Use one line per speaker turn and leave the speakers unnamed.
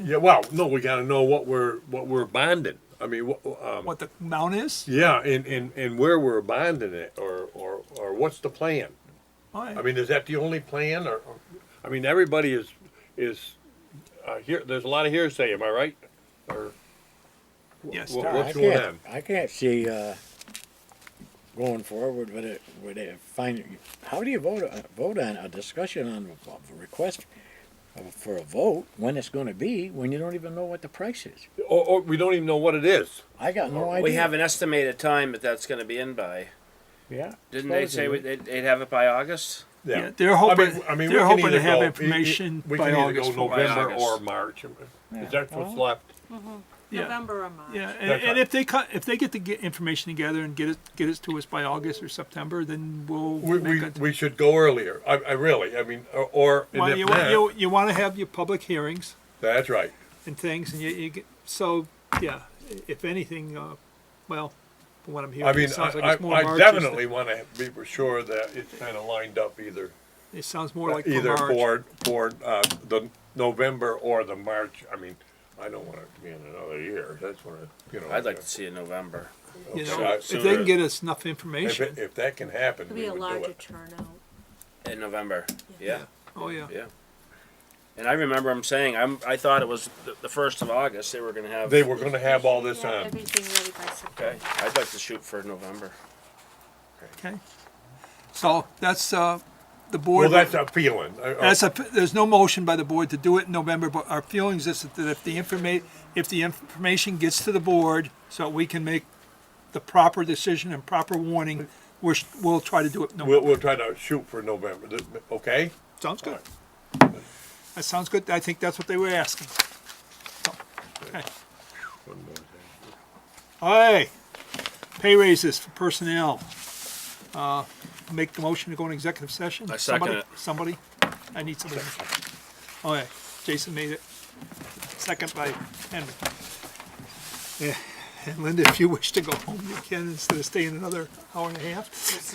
Yeah, well, no, we gotta know what we're, what we're bonding. I mean, what, um,
what the amount is?
yeah, and, and, and where we're bonding it, or, or, or what's the plan? I mean, is that the only plan, or, or- I mean, everybody is, is, uh, here, there's a lot of hearsay, am I right? Or,
yes,
wha-
there
what's
is.
I
going
can't-
on?
I can't see, uh, going forward with it, with it, finding, how do you vote, uh, vote on a discussion on a- of a request of- for a vote, when it's gonna be, when you don't even know what the price is?
Or, or we don't even know what it is.
I got no idea.
We have an estimated time that that's going to be in by.
Yeah.
Didn't they say we- they'd, they'd have it by August?
Yeah, they're hoping- they're
we can
hoping to
either
have
go-
information
we
by
can either
August,
go
by
November or
August.
March. Is
Yeah.
that what's
Well,
left?
Yeah.
November or March.
Yeah, and,
That's
and
right.
if they cut, if they get the get information together and get it get it to us by August or September, then we'll
We,
make
we,
a-
we should go earlier. I, I really, I mean, or, or and
Well,
if
you,
not-
want, you, you want to have your public hearings
that's right.
and things, and you, you get, so yeah. If anything, uh, well, from what I'm hearing,
I mean,
it sounds like
I,
it's more
I, I
March. is the-
definitely want to be for sure that it's kind of lined up either
it sounds more like for
either
March.
for for uh, the November or the March. I mean, I don't want it to be in another year. That's what I, you know.
I'd like to see it in November.
You know,
so-
if
so
they
the-
can get us enough
if,
information,
it, if that can happen,
It'll
we
be a
would do
larger
it.
turnout.
In November, yeah,
oh yeah,
yeah. And I remember them saying, I'm, I thought it was the, the first of August, they were going to have.
They were going to have all this um,
Yeah,
on.
everything ready by September.
Okay, I'd like to shoot for November.
okay. So that's uh, the
Well,
board.
that's a feeling. I- uh, I-
That's a, there's no motion by the board to do it in November, but our feelings is that if the informa, if the information gets to the board, so we can make the proper decision and proper warning, we're, we'll try to do it in
We'll,
November.
we'll try to shoot for November, th- okay?
Sounds good. That sounds good, I think that's what they were asking. So, okay. Aye, pay raises for personnel. Uh, Make the motion to go in executive session?
I second
Somebody-
it.
Somebody? I need somebody. Oh, yeah, Jason made it. Second by Henry. Eh, Yeah, And Linda, if you wish to go home, you can, instead of staying another hour and a half.